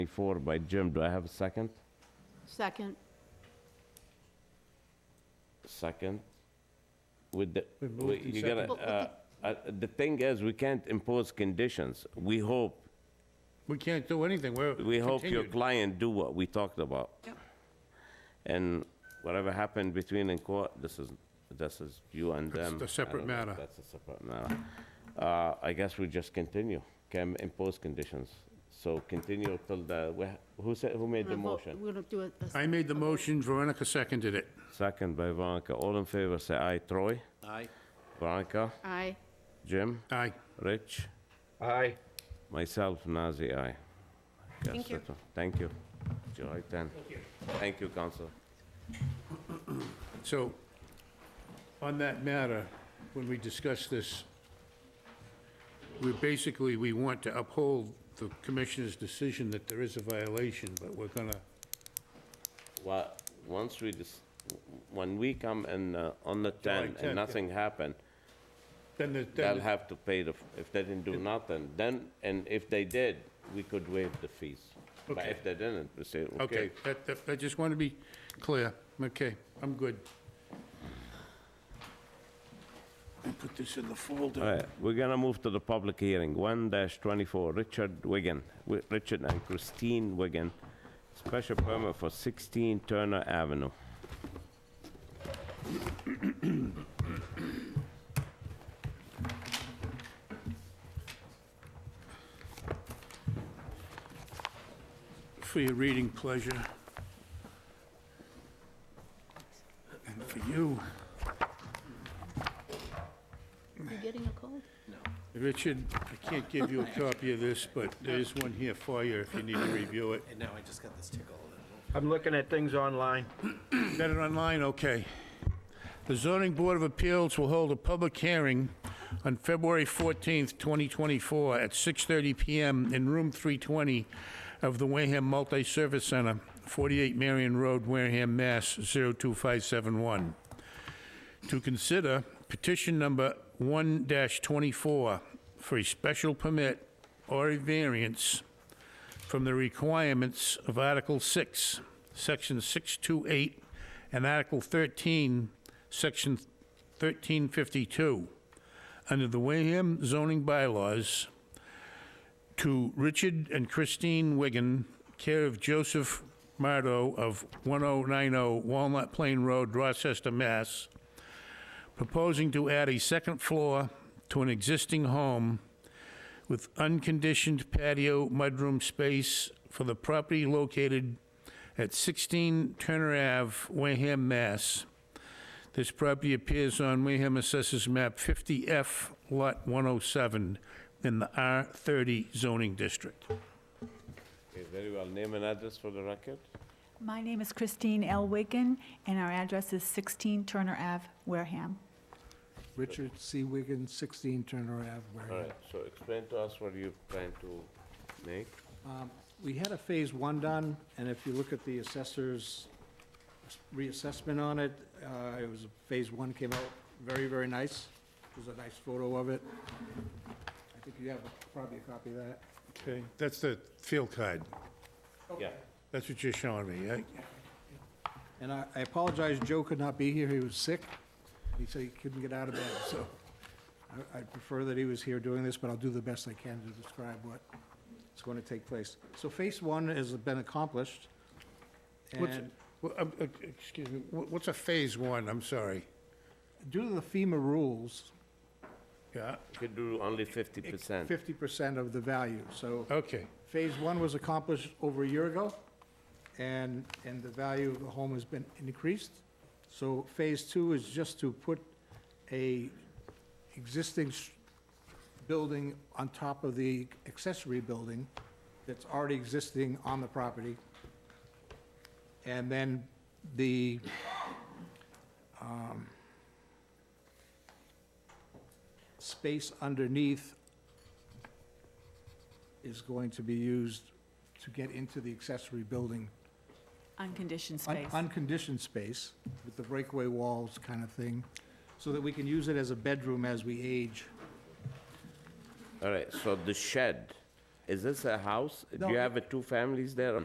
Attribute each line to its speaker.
Speaker 1: 24 by Jim. Do I have a second?
Speaker 2: Second,
Speaker 1: Second? With the,
Speaker 3: We moved
Speaker 1: we-
Speaker 3: and
Speaker 1: you gotta,
Speaker 2: seconded.
Speaker 1: uh, uh, the thing is, we can't impose conditions. We hope,
Speaker 3: We can't do anything, we're
Speaker 1: we hope your
Speaker 3: continued.
Speaker 1: client do what we talked about.
Speaker 2: Yep.
Speaker 1: And whatever happened between in court, this is, this is you and
Speaker 3: That's
Speaker 1: them.
Speaker 3: a separate
Speaker 1: I don't know.
Speaker 3: matter.
Speaker 1: That's a separate matter. Uh, I guess we just continue, can impose conditions. So continue till the, wh- who said, who made
Speaker 2: we're
Speaker 1: the
Speaker 2: gonna vote-
Speaker 1: motion?
Speaker 2: we're gonna do it. this-
Speaker 3: I made the motion, Veronica seconded it.
Speaker 1: Second by Veronica. All in favor, say aye. Troy? Aye. Veronica?
Speaker 2: Aye,
Speaker 1: Jim?
Speaker 3: Aye.
Speaker 1: Rich? Aye. Myself, Nazir, aye. Thank you. Thank you. July 10. Thank you. Thank you, Council.
Speaker 3: So, on that matter, when we discuss this, we basically, we want to uphold the commissioner's decision that there is a violation, but we're gonna,
Speaker 1: Well, once we, dis- when we come and uh, on the 10
Speaker 3: 10, yeah.
Speaker 1: and nothing happened,
Speaker 3: then the,
Speaker 1: they'll
Speaker 3: then,
Speaker 1: have to pay the, f- if they didn't do nothing, then, and if they did, we could waive the fees. But
Speaker 3: Okay.
Speaker 1: if they didn't, we say, okay,
Speaker 3: the- okay, that, that, I just want to be clear, okay, I'm good. I'll Put this in the folder.
Speaker 1: All right, we're gonna move to the public hearing, one twenty-four, Richard Wigan, Wi- Richard and Christine Wigan, special permit for sixteen Turner Avenue.
Speaker 3: for your reading pleasure. And for you,
Speaker 2: you getting a cold?
Speaker 3: Richard, I can't give you a copy of this, but there is one here for you if you need to review it.
Speaker 4: And now I just got this tickle.
Speaker 5: I'm looking at things online.
Speaker 3: Got it online, okay. The zoning board of appeals will hold a public hearing on February 14th, 2024, at 6:30 PM in room 320 of the Wareham Multi-Service Center, 48 Marion Road, Wareham, Mass. 02571. to consider petition number 1-24 for a special permit or a variance from the requirements of Article 6, Section 628, and Article 13, Section 1352, under the Wareham zoning bylaws to Richard and Christine Wigan, care of Joseph Mardo of 1090 Walnut Plain Road, Rochester, Mass., proposing to add a second floor to an existing home with unconditioned patio mudroom space for the property located at 16 Turner Ave, Wareham, Mass. This property appears on Wareham Assessors Map 50F, Lot 107, in the R30 zoning district.
Speaker 1: Okay, Very well, name and address for the record.
Speaker 6: My name is Christine L. Wigan, and our address is 16 Turner Ave, Wareham.
Speaker 4: Richard C. Wigan, 16 Turner Ave,
Speaker 1: All
Speaker 4: Wareham.
Speaker 1: right, so explain to us what you're trying to make.
Speaker 4: Um, We had a Phase 1 done, and if you look at the assessor's reassessment on it, uh, it was, Phase 1 came out very, very nice. There's a nice photo of it. I think you have probably a copy of that.
Speaker 3: Okay, that's the field card.
Speaker 1: Yeah,
Speaker 3: That's what you're showing me, right?
Speaker 4: And I I apologize, Joe could not be here, he was sick. He said he couldn't get out of bed, so I- I'd prefer that he was here doing this, but I'll do the best I can to describe what's going to take place. So phase one has been accomplished,
Speaker 3: What's-
Speaker 4: and
Speaker 3: Well, um, uh, Excuse me, wha- what's a Phase 1? I'm sorry.
Speaker 4: due to the FEMA rules,
Speaker 3: Yeah,
Speaker 1: you could do only 50%.
Speaker 4: 50% of the value, so
Speaker 3: okay.
Speaker 4: phase one was accomplished over a year ago, and, and the value of the home has been increased. So phase two is just to put a existing s- building on top of the accessory building that's already existing on the property. And then the, um, space underneath is going to be used to get into the accessory building.
Speaker 6: Unconditioned
Speaker 4: un-
Speaker 6: space.
Speaker 4: Unconditioned space with the breakaway walls kind of thing, so that we can use it as a bedroom as we age.
Speaker 1: All right, so the shed Is this a house? Do
Speaker 4: No,
Speaker 1: you
Speaker 4: it-
Speaker 1: have a two families there?